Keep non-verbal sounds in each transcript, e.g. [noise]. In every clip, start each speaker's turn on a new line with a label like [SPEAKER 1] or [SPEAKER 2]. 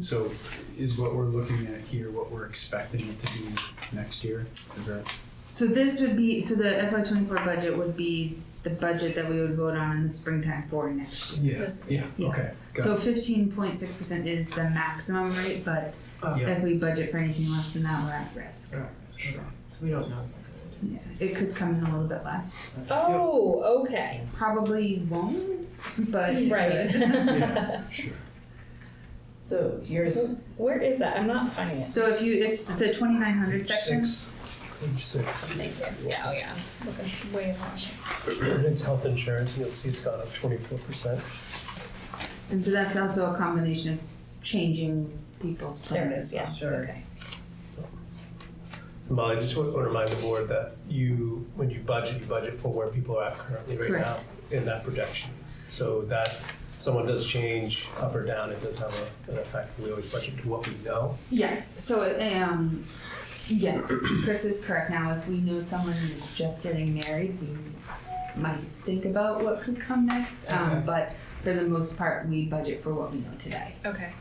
[SPEAKER 1] So is what we're looking at here, what we're expecting it to be next year? Is that,
[SPEAKER 2] So this would be, so the FY twenty-four budget would be the budget that we would vote on in the springtime for next year.
[SPEAKER 1] yeah,
[SPEAKER 3] Yes.
[SPEAKER 1] yeah,
[SPEAKER 2] Yeah.
[SPEAKER 1] okay. got
[SPEAKER 2] So fifteen point six percent is the maximum rate, but
[SPEAKER 1] it. Yeah,
[SPEAKER 2] if we budget for anything less than that, we're at risk.
[SPEAKER 1] sure.
[SPEAKER 4] So we don't know exactly. what it
[SPEAKER 2] Yeah, it could come in a little bit less.
[SPEAKER 3] Oh, okay.
[SPEAKER 2] Probably won't, but it [laughs]
[SPEAKER 3] Right. [laughs]
[SPEAKER 2] could.
[SPEAKER 5] [laughs]
[SPEAKER 1] Yeah, Sure.
[SPEAKER 4] is. So yours,
[SPEAKER 3] Where is that? I'm not finding it.
[SPEAKER 2] So if you, it's the twenty-nine hundred section.
[SPEAKER 6] Six. Page six.
[SPEAKER 3] Thank you. Yeah, oh yeah. Looking way off.
[SPEAKER 6] It's health insurance, and you'll see it's gone up twenty-four percent.
[SPEAKER 2] And so that's also a combination of changing people's
[SPEAKER 3] There it
[SPEAKER 2] plans
[SPEAKER 3] is,
[SPEAKER 2] as well.
[SPEAKER 3] yeah. Okay.
[SPEAKER 6] Molly, just want to remind the board that you, when you budget, you budget for where people are at currently right now
[SPEAKER 2] Correct.
[SPEAKER 6] in that projection. So that, someone does change up or down, it does have a- an effect. We always budget to what we know.
[SPEAKER 2] Yes, so, um, yes,
[SPEAKER 4] [clears throat]
[SPEAKER 2] Chris is correct. Now, if we know someone who's just getting married, we might think about what could come next. Um,
[SPEAKER 4] Okay.
[SPEAKER 2] but for the most part, we budget for what we know today.
[SPEAKER 3] Okay.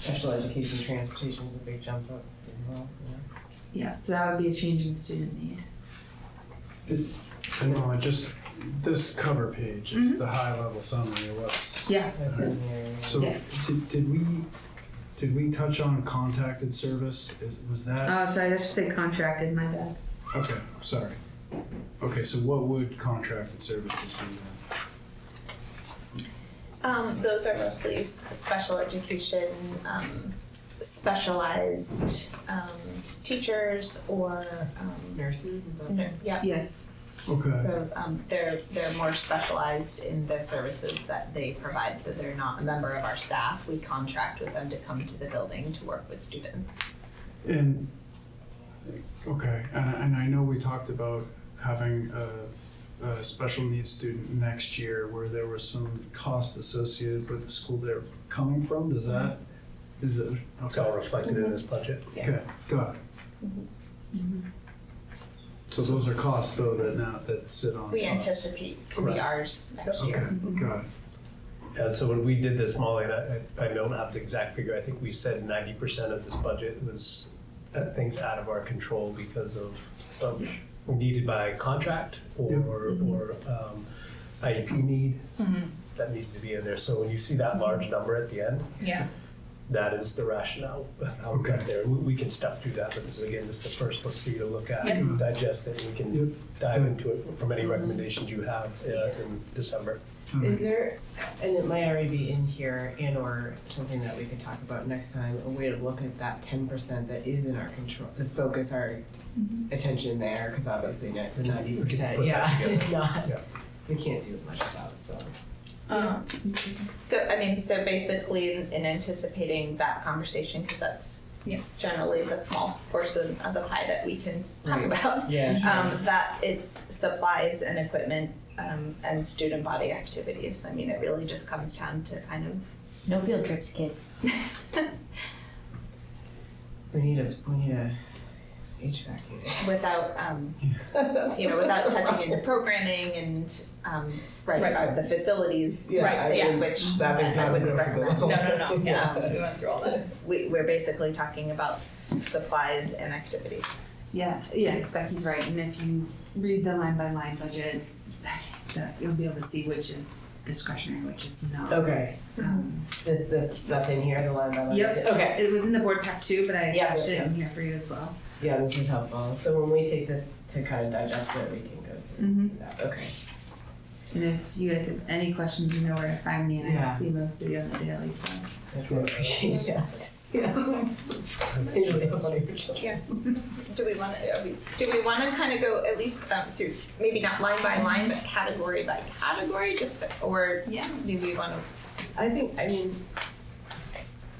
[SPEAKER 4] special education, transportation is a big jump up as well, yeah.
[SPEAKER 2] Yes, so that would be a change in student need.
[SPEAKER 1] And no, I just, this cover page
[SPEAKER 2] Mm-hmm.
[SPEAKER 1] is the high level summary of what's.
[SPEAKER 2] Yeah,
[SPEAKER 4] That's in there.
[SPEAKER 1] So
[SPEAKER 2] Yeah.
[SPEAKER 1] did, did we, did we touch on contacted service? Is- Was that,
[SPEAKER 2] oh, sorry, I should say contracted, my bad.
[SPEAKER 1] okay, sorry. Okay, so what would contracted services be then?
[SPEAKER 5] Um, those are mostly s- special education, um, specialized um, teachers or um,
[SPEAKER 4] Nurses, is
[SPEAKER 6] Mm-hmm.
[SPEAKER 4] that?
[SPEAKER 5] n- yeah.
[SPEAKER 2] Yes,
[SPEAKER 1] Okay,
[SPEAKER 5] So um, they're they're more specialized in the services that they provide. So they're not a member of our staff. We contract with them to come to the building to work with students.
[SPEAKER 1] and, okay, and, and I know we talked about having a, a special needs student next year where there was some cost associated with the school they're coming from, does that, is it?
[SPEAKER 6] It's all
[SPEAKER 1] okay,
[SPEAKER 6] reflected in this budget.
[SPEAKER 1] Okay, got it.
[SPEAKER 5] Mm-hmm.
[SPEAKER 1] So those are costs though that now, that sit on.
[SPEAKER 5] We
[SPEAKER 1] us.
[SPEAKER 5] anticipate to
[SPEAKER 6] Correct.
[SPEAKER 5] be ours next
[SPEAKER 6] Okay.
[SPEAKER 5] year.
[SPEAKER 1] Okay, got it,
[SPEAKER 6] And so when we did this, Molly, and I, I don't have the exact figure, I think we said ninety percent of this budget was uh, things out of our control because of, of needed by contract
[SPEAKER 1] Yeah. Mm-hmm.
[SPEAKER 6] or, or um, IEP need that needs to be in there. So when you see that large number at the end,
[SPEAKER 3] Yeah.
[SPEAKER 6] that is the rationale, [laughs] how we
[SPEAKER 1] Okay.
[SPEAKER 6] got there. We, we can step through that, but this is, again, this is the first look for you to look at,
[SPEAKER 1] Yeah.
[SPEAKER 6] digest it, we
[SPEAKER 1] Yep.
[SPEAKER 6] can dive into it from any recommendations you have uh, in December.
[SPEAKER 1] all right.
[SPEAKER 4] Is there, and it might already be in here and or something that we could talk about next time, a way to look at that ten percent that is in our control, to focus our
[SPEAKER 5] Mm-hmm.
[SPEAKER 4] attention there, cause obviously not, the ninety
[SPEAKER 6] We can put
[SPEAKER 4] percent,
[SPEAKER 6] that
[SPEAKER 4] yeah, [laughs]
[SPEAKER 6] together.
[SPEAKER 4] it's not,
[SPEAKER 6] Yeah.
[SPEAKER 4] we can't do much about, so.
[SPEAKER 5] Um, so I mean, so basically, in, in anticipating that conversation, because that's
[SPEAKER 3] Yeah.
[SPEAKER 5] generally the small portion of the pie that we can talk
[SPEAKER 4] Right.
[SPEAKER 5] about.
[SPEAKER 4] Yeah,
[SPEAKER 5] Um, that it's supplies and equipment um, and student body activities. I mean, it really just comes down to kind of
[SPEAKER 7] No field trips, kids.
[SPEAKER 5] [laughs]
[SPEAKER 4] We need a, we need a HVAC unit.
[SPEAKER 5] without um, [laughs] you know without
[SPEAKER 4] [laughs]
[SPEAKER 5] touching into programming and um, right,
[SPEAKER 3] Right.
[SPEAKER 5] uh, the facilities
[SPEAKER 4] Yeah,
[SPEAKER 3] Right,
[SPEAKER 4] I
[SPEAKER 3] yeah.
[SPEAKER 4] wouldn't-
[SPEAKER 5] which
[SPEAKER 4] That is
[SPEAKER 5] I- I
[SPEAKER 4] not
[SPEAKER 5] wouldn't
[SPEAKER 4] workable.
[SPEAKER 5] recommend.
[SPEAKER 3] No, no,
[SPEAKER 4] [laughs]
[SPEAKER 3] no. Yeah. We went through all that.
[SPEAKER 5] we, we're basically talking about supplies and activities.
[SPEAKER 2] yeah, yes, Becky's right. And if you read the line by line budget, [laughs] that you'll be able to see which is discretionary, which is not.
[SPEAKER 4] Okay,
[SPEAKER 2] Um,
[SPEAKER 4] this, this, that's in here, the line by line.
[SPEAKER 2] Yep.
[SPEAKER 4] Okay,
[SPEAKER 2] It was in the board pack too, but I
[SPEAKER 4] Yeah.
[SPEAKER 2] attached it in here for you as well.
[SPEAKER 4] yeah, this is helpful, so when we take this to kind of digest it, we can go through and see that, okay.
[SPEAKER 2] And if you guys have any questions, you know where to find me, and I
[SPEAKER 4] Yeah.
[SPEAKER 2] see most of you on the daily, so.
[SPEAKER 4] That's what I appreciate, [laughs] yes, yeah. Usually I'm on your shoulder.
[SPEAKER 5] Do we want to, do we want to kind of go at least um, through, maybe not line by line, but category by category, just, or
[SPEAKER 3] Yeah.
[SPEAKER 5] do we want to,
[SPEAKER 4] I think, I mean,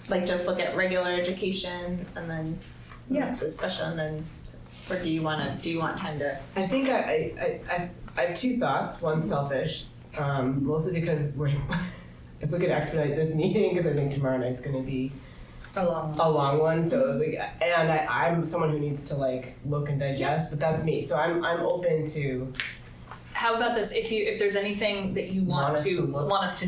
[SPEAKER 5] like, just look at regular education and then,
[SPEAKER 3] Yeah.
[SPEAKER 5] so special and then, or do you want to, do you want time to?
[SPEAKER 4] I think I, I, I, I have two thoughts, one selfish, um, mostly because we're, [laughs] if we could expedite this meeting, because I think tomorrow night's gonna be
[SPEAKER 3] Along.
[SPEAKER 4] a long one, so if we, and I, I'm someone who needs to like look and digest, but that's me, so I'm, I'm open to
[SPEAKER 3] How about this? If you if there's anything that you want,
[SPEAKER 4] Want us
[SPEAKER 3] to
[SPEAKER 4] to look-
[SPEAKER 3] want us to